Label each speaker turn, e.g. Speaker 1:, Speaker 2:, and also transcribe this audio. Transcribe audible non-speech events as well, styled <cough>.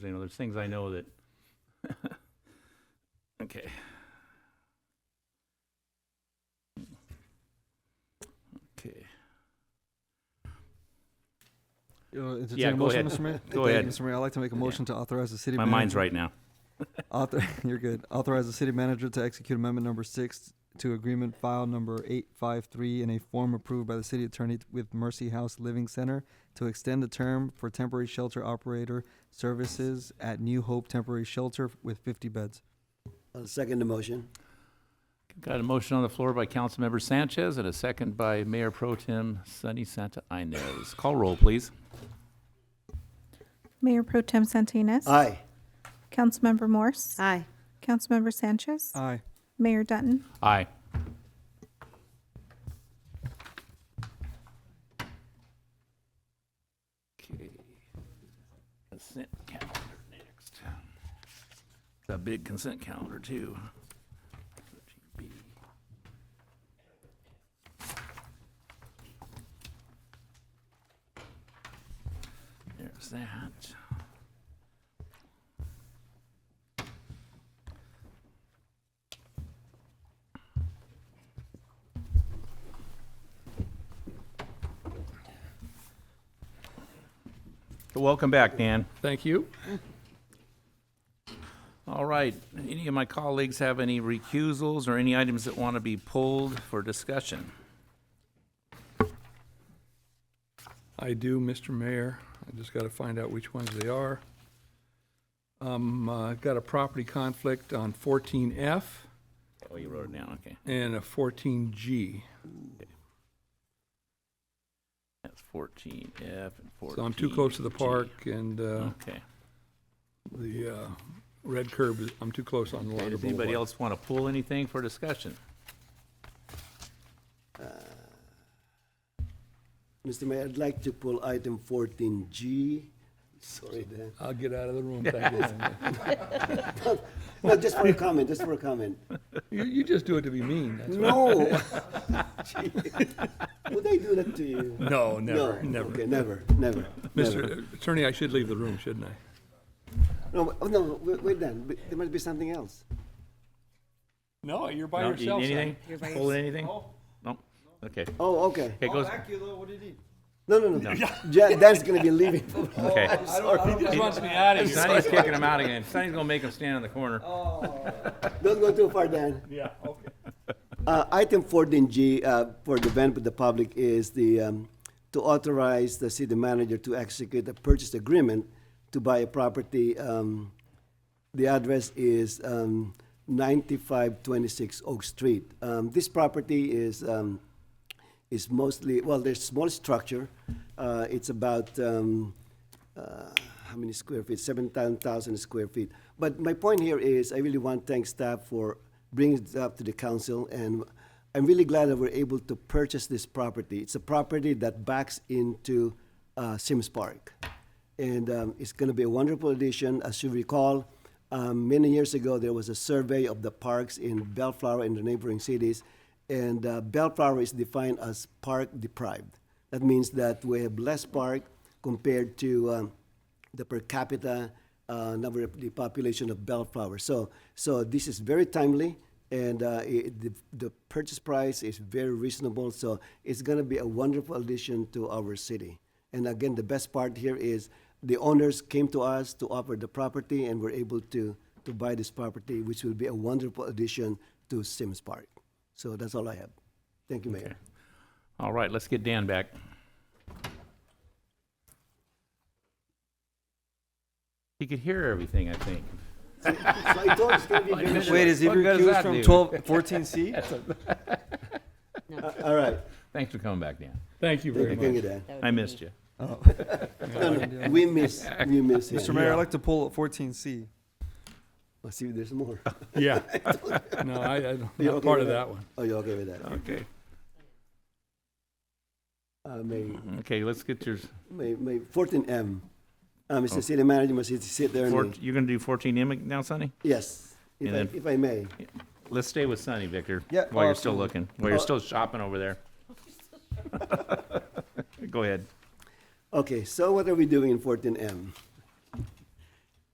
Speaker 1: You know, there's things I know that, <laughs> okay. Okay.
Speaker 2: You wanna entertain
Speaker 1: Yeah,
Speaker 2: a
Speaker 1: go
Speaker 2: motion,
Speaker 1: ahead.
Speaker 2: Mr. Mayor?
Speaker 1: Go
Speaker 2: Thank you,
Speaker 1: ahead.
Speaker 2: Mr. Mayor, I'd like to make a
Speaker 1: Yeah.
Speaker 2: motion to authorize the city.
Speaker 1: My mind's
Speaker 2: manager-
Speaker 1: right now.
Speaker 2: Author, <laughs> you're good. Authorize the city manager to execute amendment number six to agreement file number eight five three in a form approved by the city attorney with Mercy House Living Center to extend the term for temporary shelter operator services at New Hope Temporary Shelter with fifty beds.
Speaker 3: I'll second the motion.
Speaker 1: Got a motion on the floor by Councilmember Sanchez and a second by Mayor Pro Tem Sunny Santa Inez. Call roll, please.
Speaker 4: Mayor Pro Tem Santinas.
Speaker 3: Aye.
Speaker 4: Councilmember Morse.
Speaker 5: Aye.
Speaker 4: Councilmember Sanchez.
Speaker 2: Aye.
Speaker 4: Mayor Dutton.
Speaker 1: Aye. Okay. Consent calendar next. It's A big consent calendar too. 13B. There's that. Welcome back, Dan.
Speaker 6: Thank you.
Speaker 1: All right, any of my colleagues have any recusals or any items that want to be pulled for discussion?
Speaker 6: I do, Mr. Mayor. I just got to find out which ones they are. Um, uh, got a property conflict on 14F
Speaker 1: Oh, you wrote it down, okay.
Speaker 6: and a 14G.
Speaker 1: That's fourteen F and fourteen.
Speaker 6: So I'm too close to the
Speaker 1: G.
Speaker 6: park and, uh,
Speaker 1: Okay.
Speaker 6: the, uh, red curb, is- I'm too close on the
Speaker 1: Okay,
Speaker 6: line of
Speaker 1: Does anybody
Speaker 6: Boulevard.
Speaker 1: else want to pull anything for discussion?
Speaker 3: Mr. Uh, Mayor, I'd like to pull item fourteen G. Sorry, Dan.
Speaker 6: I'll get out of
Speaker 1: <laughs>
Speaker 6: the room. Thank you, Linda.
Speaker 3: No, just for a comment, just for a comment.
Speaker 6: You, you just do it to be mean. that's
Speaker 1: <laughs>
Speaker 6: all.
Speaker 3: No. <laughs> Would I do that to you?
Speaker 6: No, never,
Speaker 3: No.
Speaker 6: never.
Speaker 3: Okay, never, never, never.
Speaker 6: Mr. Attorney, I should leave the room, shouldn't I?
Speaker 3: No, oh, no, wait, wait, Dan, but there must be something else.
Speaker 6: No, you're
Speaker 1: No, you- Anything? Pull anything? Nope, okay.
Speaker 3: Oh, okay.
Speaker 1: Okay, goes,
Speaker 3: No, no, no. Ja- Dan's gonna be leaving. <laughs>
Speaker 1: okay.
Speaker 6: He just wants me out of
Speaker 1: Sonny's kicking him out again. Sonny's gonna make him stand in the corner.
Speaker 3: Don't go too far, Dan.
Speaker 6: <laughs> Yeah, okay.
Speaker 3: Uh, Item 14G uh, for the benefit of the public is the, um, to authorize the city manager to execute a purchase agreement to buy a property. um, The address is um, 9526 Oak Street. Um, This property is, um, is mostly, well, there's small structure. Uh, It's about, um, uh, how many square feet? 7,000 square feet. But my point here is, I really want to thank staff for bringing it up to the council, and I'm really glad that we're able to purchase this property. It's a property that backs into uh, Sims Park, and um, it's going to be a wonderful addition. As you recall, um, many years ago, there was a survey of the parks in Bellflower and the neighboring cities, and uh, Bellflower is defined as park deprived. That means that we have less park compared to um, the per capita uh, number of the population of Bellflower. So, so this is very timely, and uh, it, the, the purchase price is very reasonable. So it's going to be a wonderful addition to our city. And again, the best part here is the owners came to us to offer the property, and we're able to to buy this property, which will be a wonderful addition to Sims Park. So that's all I have. Thank you, Mayor.
Speaker 1: All right, let's get Dan back. He could hear everything, I think.
Speaker 3: So I thought it's going to be
Speaker 2: <laughs>
Speaker 3: very
Speaker 2: Wait, is he
Speaker 1: What good does
Speaker 2: recused
Speaker 1: that
Speaker 2: from
Speaker 1: do?
Speaker 2: 12,
Speaker 1: <laughs>
Speaker 2: 14C?
Speaker 3: Uh, all right.
Speaker 1: Thanks for coming back, Dan.
Speaker 6: Thank you very
Speaker 3: Thank you,
Speaker 6: much.
Speaker 3: Dan.
Speaker 1: I missed you.
Speaker 3: We miss, we miss
Speaker 2: <laughs>
Speaker 3: him.
Speaker 2: Mr. Mayor, I'd like to pull up 14C.
Speaker 3: Let's see if there's more.
Speaker 1: <laughs>
Speaker 6: Yeah. <laughs> No, I, I'm
Speaker 3: You
Speaker 6: not
Speaker 3: okay
Speaker 6: part
Speaker 3: with
Speaker 6: of
Speaker 3: that?
Speaker 6: that one.
Speaker 3: Oh, you're okay with that?
Speaker 1: Okay.
Speaker 3: Uh, may,
Speaker 1: Okay, let's get yours.
Speaker 3: may, may, fourteen M. Uh, Mr. City Manager, must you sit there
Speaker 1: Four,
Speaker 3: and,
Speaker 1: you're gonna do Oh. fourteen M now, Sonny?
Speaker 3: yes, if
Speaker 1: And
Speaker 3: I,
Speaker 1: then-
Speaker 3: if I may.
Speaker 1: Let's stay with Sonny, Victor.
Speaker 2: Yeah,
Speaker 1: While you're
Speaker 2: uh,
Speaker 1: still looking, while you're still shopping over there. Go ahead.
Speaker 3: Okay, so what are we doing in fourteen M?